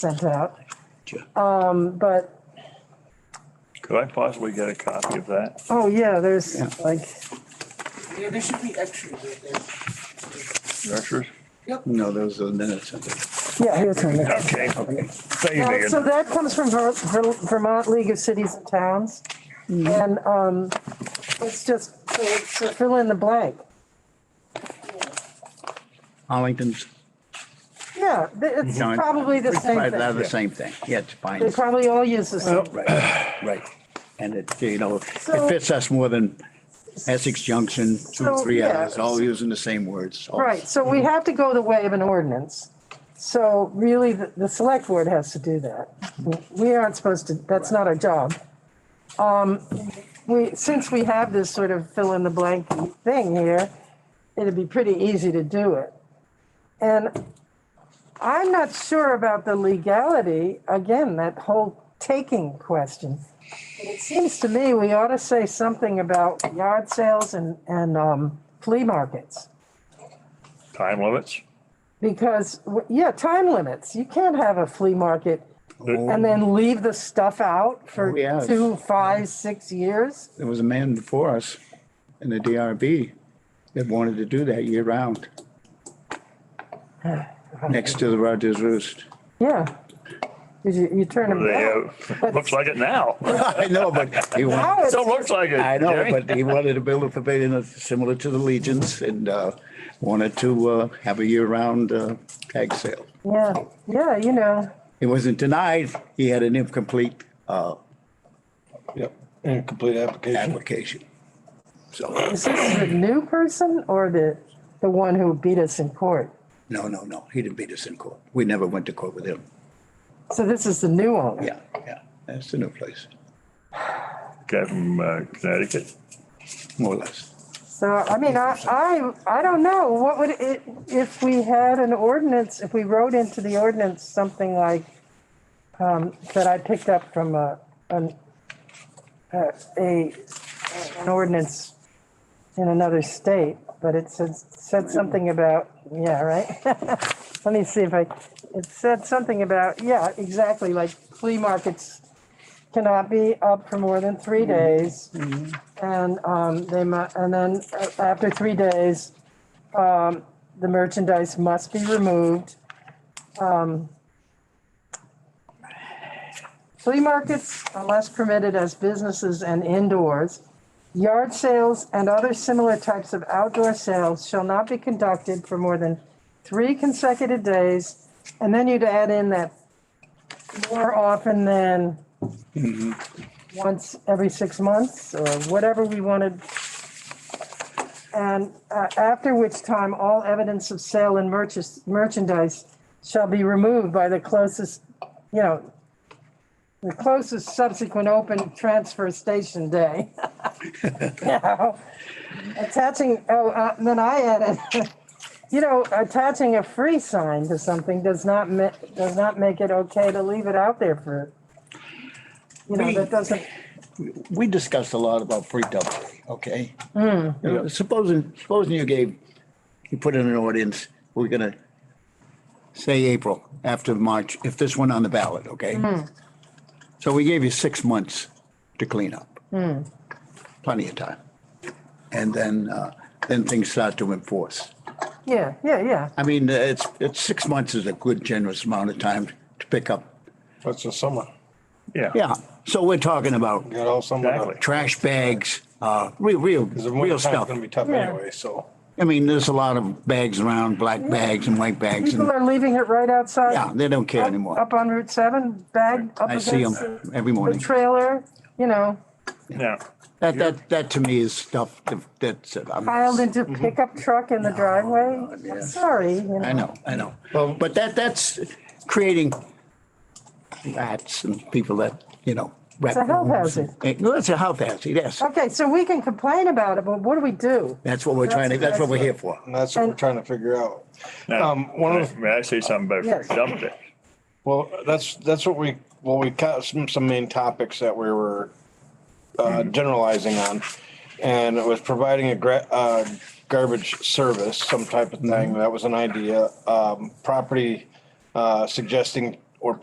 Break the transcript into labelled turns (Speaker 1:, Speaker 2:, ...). Speaker 1: sent out.
Speaker 2: Sure.
Speaker 1: Um, but,
Speaker 3: Could I possibly get a copy of that?
Speaker 1: oh yeah, there's like,
Speaker 4: Yeah, there should be extras right there.
Speaker 3: Nurses?
Speaker 2: No, those are the minutes. I think.
Speaker 1: yeah, here's one. Uh,
Speaker 3: Okay. Saving
Speaker 1: So
Speaker 3: it.
Speaker 1: that comes from Ver- Ver- Vermont League of Cities and Towns. And, um, it's just to to fill in the blank.
Speaker 2: Hollington's,
Speaker 1: Yeah, th- it's
Speaker 2: No, I-
Speaker 1: probably the same
Speaker 2: right, they're the
Speaker 1: thing.
Speaker 2: same thing. Yeah, it's
Speaker 1: They
Speaker 2: fine.
Speaker 1: probably all use the same.
Speaker 2: Right, right. And it, you know, it
Speaker 1: So-
Speaker 2: fits us more than Essex Junction, two,
Speaker 1: So,
Speaker 2: three
Speaker 1: yeah.
Speaker 2: others, all using the same words. all-
Speaker 1: Right, so we have to go the way of an ordinance. So really, the, the select board has to do that. We aren't supposed to, that's not our job. Um, we, since we have this sort of fill in the blank thing here, it'd be pretty easy to do it. And I'm not sure about the legality, again, that whole taking question. It seems to me we ought to say something about yard sales and, and, um, flea markets.
Speaker 3: Time limits?
Speaker 1: Because, w- yeah, time limits. You can't have a flea market and then leave the stuff out for
Speaker 2: Oh, yes.
Speaker 1: two, five, six years.
Speaker 2: There was a man before us in the DRB that wanted to do that year round. Next to the Rogers Roost.
Speaker 1: Yeah. 'Cause you, you turn them
Speaker 3: They
Speaker 1: down.
Speaker 3: have, looks like it now.
Speaker 2: I know, but he wanted.
Speaker 1: Now it's-
Speaker 3: Still looks like it.
Speaker 2: I know,
Speaker 3: Jerry.
Speaker 2: but he wanted to build a pavilion similar to the Legion's and uh, wanted to uh, have a year-round uh, tag sale.
Speaker 1: Yeah, yeah, you know,
Speaker 2: It wasn't denied. He had an incomplete uh,
Speaker 5: Yep, incomplete application.
Speaker 2: application. So,
Speaker 1: is this the new person or the, the one who beat us in court?
Speaker 2: no, no, no, he didn't beat us in court. We never went to court with him.
Speaker 1: So this is the new owner?
Speaker 2: Yeah, yeah, that's the new place,
Speaker 3: Guy from uh, Connecticut.
Speaker 2: more or less.
Speaker 1: So, I mean, I, I, I don't know, what would it, if we had an ordinance, if we wrote into the ordinance something like, um, that I picked up from a, an, a, a- an ordinance in another state, but it said, said something about, yeah, right? Let me see if I, it said something about, yeah, exactly, like flea markets cannot be up for more than three days. And um, they mu, and then uh, after three days, um, the merchandise must be removed. Um, Flea markets unless permitted as businesses and indoors. Yard sales and other similar types of outdoor sales shall not be conducted for more than three consecutive days. And then you'd add in that more often than once every six months or whatever we wanted. And uh, after which time, all evidence of sale and merchas- merchandise shall be removed by the closest, you know, the closest subsequent open transfer station day. You know, Attaching, oh, uh, then I added, you know, attaching a free sign to something does not ma, does not make it okay to leave it out there for, you know, that doesn't.
Speaker 2: we discussed a lot about free dumpling, okay? You know, Supposing, supposing you gave, you put in an audience, we're gonna say April after March, if this went on the ballot, okay? So we gave you six months to clean up. Plenty of time. And then, uh, then things start to enforce.
Speaker 1: Yeah, yeah, yeah.
Speaker 2: I mean, it's, it's, six months is a good generous amount of time to pick up.
Speaker 5: That's the summer.
Speaker 3: Yeah.
Speaker 2: Yeah, so we're talking about
Speaker 5: You got all summer.
Speaker 3: Exactly.
Speaker 2: trash bags, uh, real, real,
Speaker 5: Because the
Speaker 2: real
Speaker 5: winter time's
Speaker 2: stuff.
Speaker 5: gonna be tough
Speaker 1: Yeah.
Speaker 5: anyway, so.
Speaker 2: I mean, there's a lot of bags around, black bags and white bags,
Speaker 1: People
Speaker 2: and,
Speaker 1: are leaving it right outside.
Speaker 2: yeah, they don't care
Speaker 1: up-
Speaker 2: anymore.
Speaker 1: Up on Route 7, bag up
Speaker 2: I see
Speaker 1: against
Speaker 2: them
Speaker 1: the
Speaker 2: every
Speaker 1: the
Speaker 2: morning.
Speaker 1: trailer, you know,
Speaker 3: Yeah.
Speaker 2: That, that, that to me is stuff that- that's, I'm,
Speaker 1: piled into pickup truck in the driveway.
Speaker 2: Mm-hmm. no,
Speaker 1: I'm
Speaker 2: yes.
Speaker 1: Sorry, you
Speaker 2: I
Speaker 1: know.
Speaker 2: know, I know. But that, that's creating rats and people that, you know. It's
Speaker 1: a health hazard.
Speaker 2: No, it's a health hazard, yes.
Speaker 1: Okay, so we can complain about it, but what do we do?
Speaker 2: That's what we're trying to, that's what we're here for.
Speaker 5: And that's what we're trying to figure out.
Speaker 3: Now,
Speaker 5: Um, one of the-
Speaker 3: May I say something about
Speaker 1: Yes.
Speaker 3: dump it?
Speaker 5: Well, that's, that's what we, well, we got some, some main topics that we were, uh, generalizing on. And it was providing a gra- uh, garbage
Speaker 2: Mm-hmm.
Speaker 5: service, some type of thing. That was an idea. Um, property, uh, suggesting